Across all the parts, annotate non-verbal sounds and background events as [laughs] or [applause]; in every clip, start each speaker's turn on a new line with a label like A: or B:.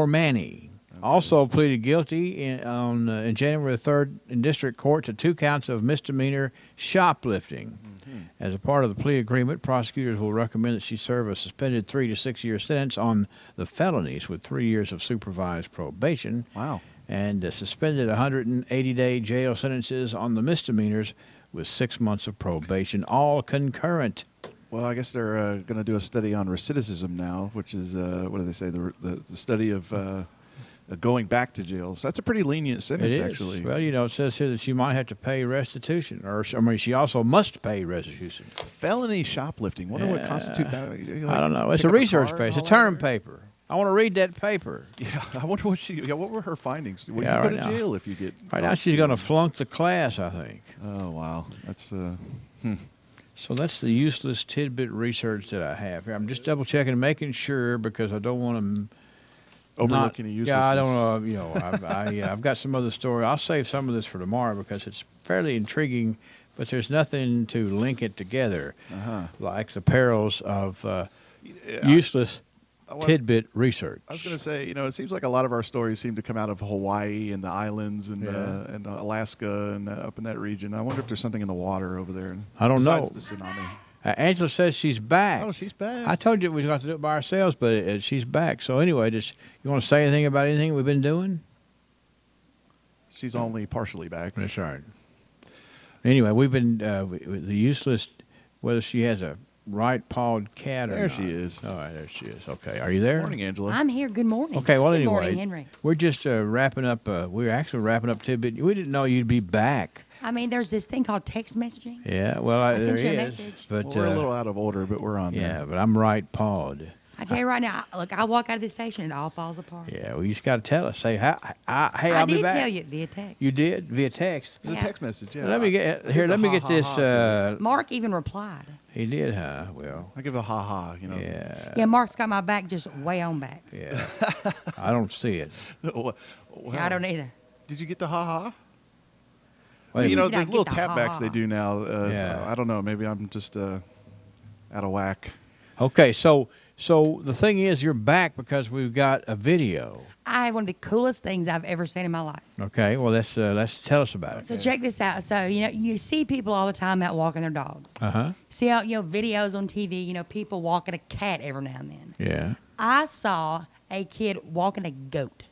A: Cormani. Also pleaded guilty in, on uh, in January the third in district court to two counts of misdemeanor shoplifting. As a part of the plea agreement, prosecutors will recommend that she serve a suspended three to six year sentence on the felonies with three years of supervised probation
B: Wow.
A: and uh, suspended 180 day jail sentences on the misdemeanors with six months of probation, all concurrent.
B: Well, I guess they're uh, going to do a study on recidivism now, which is uh, what do they say? The, the, the study of uh, going back to jail. So that's a pretty lenient
A: It
B: sentence,
A: is.
B: actually.
A: Well, you know, it says here that she might have to pay restitution, or I mean, she also must pay restitution.
B: Felony shoplifting. Wonder what
A: Yeah.
B: constitutes that. You, like,
A: I don't know. It's
B: pick
A: a
B: up car
A: research
B: and
A: paper. It's a
B: all
A: term
B: that?
A: paper. I want to read that paper.
B: [laughs] Yeah, I wonder what she. Yeah, what were her findings? Will
A: Yeah,
B: you
A: right
B: go to
A: now.
B: jail if you get?
A: Right now, she's going to flunk the class, I think.
B: Oh wow, that's uh,
A: So that's the useless tidbit research that I have here. I'm just double checking, making sure because I don't want to
B: overlooking
A: not,
B: a useless.
A: Yeah, I don't know. You know, I've, I, yeah, I've got some other story. I'll save some of this for tomorrow because it's fairly intriguing, but there's nothing to link it together,
B: Uh-huh.
A: like the perils of uh, useless
B: I was-
A: tidbit research.
B: I was going to say, you know, it seems like a lot of our stories seem to come out of Hawaii and the islands and uh,
A: Yeah.
B: and Alaska and uh, up in that region. I wonder if there's something in the water over there.
A: I don't know.
B: besides The tsunami.
A: Uh, Angela says she's back.
B: Oh, she's back.
A: I told you we got to do it by ourselves, but uh, she's back. So anyway, just you want to say anything about anything we've been doing?
B: She's only partially back.
A: That's right. Anyway, we've been uh, w- w- the useless. Whether she has a right-pawed cat or
B: There she
A: not.
B: is.
A: All right, there she is. Okay, are you there?
B: Morning, Angela.
C: I'm here. Good morning.
A: Okay, well
C: Good
A: anyway,
C: morning, Henry.
A: we're just uh, wrapping up. Uh, we're actually wrapping up tidbit. We didn't know you'd be back.
C: I mean, there's this thing called text messaging.
A: Yeah, well, I,
C: I
A: there
C: sent you a
A: is,
C: message.
A: but
B: Well, we're
A: uh,
B: a little out of order, but we're on
A: yeah,
B: there.
A: but I'm right-pawed.
C: I tell you right now, I- look, I walk out of the station, it all falls apart.
A: Yeah, well, you just got to tell us. Say, hi, I, hey,
C: I
A: will
C: did
A: be back.
C: tell you via text.
A: You did via text.
B: It was
C: Yeah.
B: a text message. Yeah.
A: Let
B: I-
A: me get
B: I
A: here.
B: did
A: Let me
B: the ha,
A: get
B: ha,
A: this.
B: ha to
A: Uh,
B: it.
C: Mark even replied.
A: he did, huh? Well,
B: I give a ha ha. You know. [laughs]
A: yeah,
C: Yeah, Mark's got my back just way on back.
A: yeah. I don't see it.
B: Well,
C: Yeah, I don't either.
B: Did you get the ha ha?
A: Wait a
B: you know
A: minute.
C: Did I
B: the
C: get
B: little
C: the
B: tapbacks they
C: ha-ha?
B: do now. Uh,
A: Yeah.
B: I don't know. Maybe I'm just uh, out of whack.
A: okay, so so the thing is, you're back because we've got a video.
C: I had one of the coolest things I've ever seen in my life.
A: Okay, well let's uh, let's tell us about it.
C: So check this out. So, you know, you see people all the time out walking their dogs.
A: Uh huh.
C: See how, you know, videos on TV, you know, people walking a cat every now and then.
A: Yeah.
C: I saw a kid walking a goat.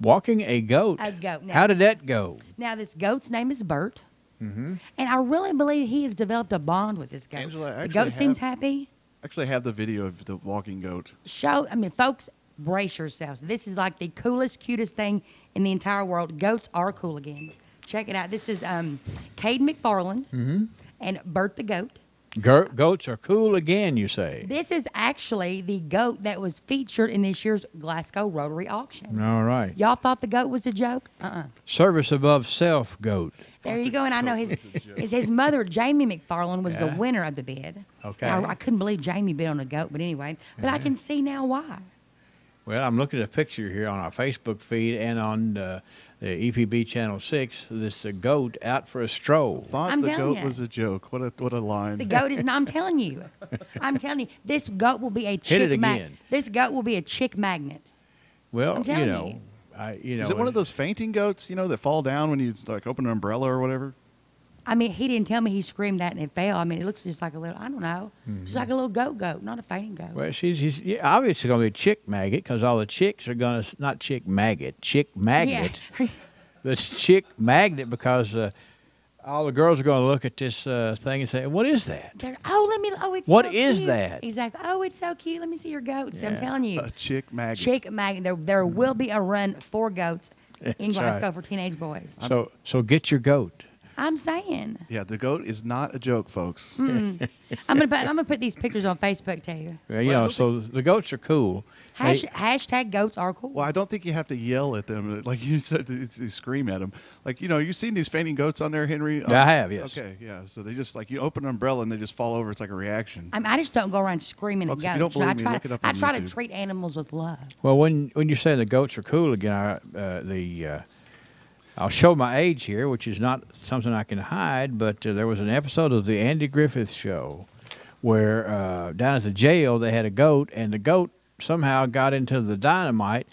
A: Walking a goat.
C: A goat, now-
A: How did that go?
C: Now, this goat's name is Bert. And I really believe he has developed a bond with this goat.
B: Mm-hmm. Angela, I
C: the
B: actually
C: goat seems
B: have-
C: happy.
B: Actually, I have the video of the walking goat.
C: Show, I mean, folks, brace yourselves. This is like the coolest, cutest thing in the entire world. Goats are cool again. Check it out. This is um, Cade McFarland
B: Mm-hmm.
C: and Bert the goat.
A: Go- goats are cool again, you say.
C: This is actually the goat that was featured in this year's Glasgow Rotary auction.
A: All right.
C: Y'all thought the goat was a joke? Uh-uh.
A: Service above self, goat.
C: There you go. And I know his
B: It's a joke.
C: his, his mother, Jamie McFarland, was
A: Yeah.
C: the winner of the bid.
A: Okay.
C: Now, I couldn't believe Jamie bid on a goat, but anyway, but I can see now why.
A: Well, I'm looking at a picture here on our Facebook feed and on uh, the EPB Channel 6. This uh, goat out for a stroll.
B: Thought
C: I'm
B: the
C: telling
B: goat
C: ya.
B: was a joke. What a what a line.
C: The goat is not, I'm telling you. I'm telling you, this goat will be a chick
A: it
C: ma-
A: again.
C: This goat will be a chick magnet.
A: Well,
C: I'm
A: you
C: telling
A: know,
C: you.
A: I you know.
B: [laughs] Is it one of those fainting goats? You know that fall down when you like open an umbrella or whatever.
C: I mean, he didn't tell me he screamed that and it fell. I mean, it looks just like a little, I don't know, just like a little goat goat, not a fainting goat.
A: Mm-hmm. Well, she's, she's yeah, obviously going to be a chick maggot because all the chicks are going to not chick maggot, chick magnet.
C: Yeah.
A: The chick magnet because uh, all the girls are going to look at this uh, thing and say, "What is that?"
C: [laughs] They're- oh, let me, oh, it's
A: What
C: so
A: is
C: cute.
A: that?
C: Exactly. Oh, it's so cute. Let me see your goats. I'm
A: Yeah.
C: telling you.
B: A chick maggot.
C: Chick magnet. There, there
B: Mm-hmm.
C: will be a run
B: [laughs]
C: for goats in
A: That's
C: Glasgow
A: right.
C: for teenage boys.
A: so so get your goat.
C: I'm saying.
B: Yeah, the goat is not a joke, folks.
C: Mm. I'm gonna put, I'm gonna put these pictures on
B: [laughs]
C: Facebook too.
A: Yeah, you know, so the goats are cool. They-
C: Hash, hashtag goats are cool.
B: Well, I don't think you have to yell at them [laughs] like you said. It's, you scream at them, like you know. You've seen these fainting goats on there, Henry.
A: Yeah, I have, yes.
B: Okay. Yeah. So they just like you open an umbrella and they just fall over. It's like a reaction.
C: I, mean, I just don't go around screaming
B: Folks, if
C: at
B: you
C: goats.
B: don't believe
C: I
B: me,
C: try,
B: look it up
C: I
B: on
C: try to
B: YouTube.
C: treat animals with love.
A: Well, when when you say the goats are cool again, I, uh, the uh, I'll show my age here, which is not something I can hide. But uh, there was an episode of the Andy Griffith Show where uh, down at the jail they had a goat, and the goat somehow got into the dynamite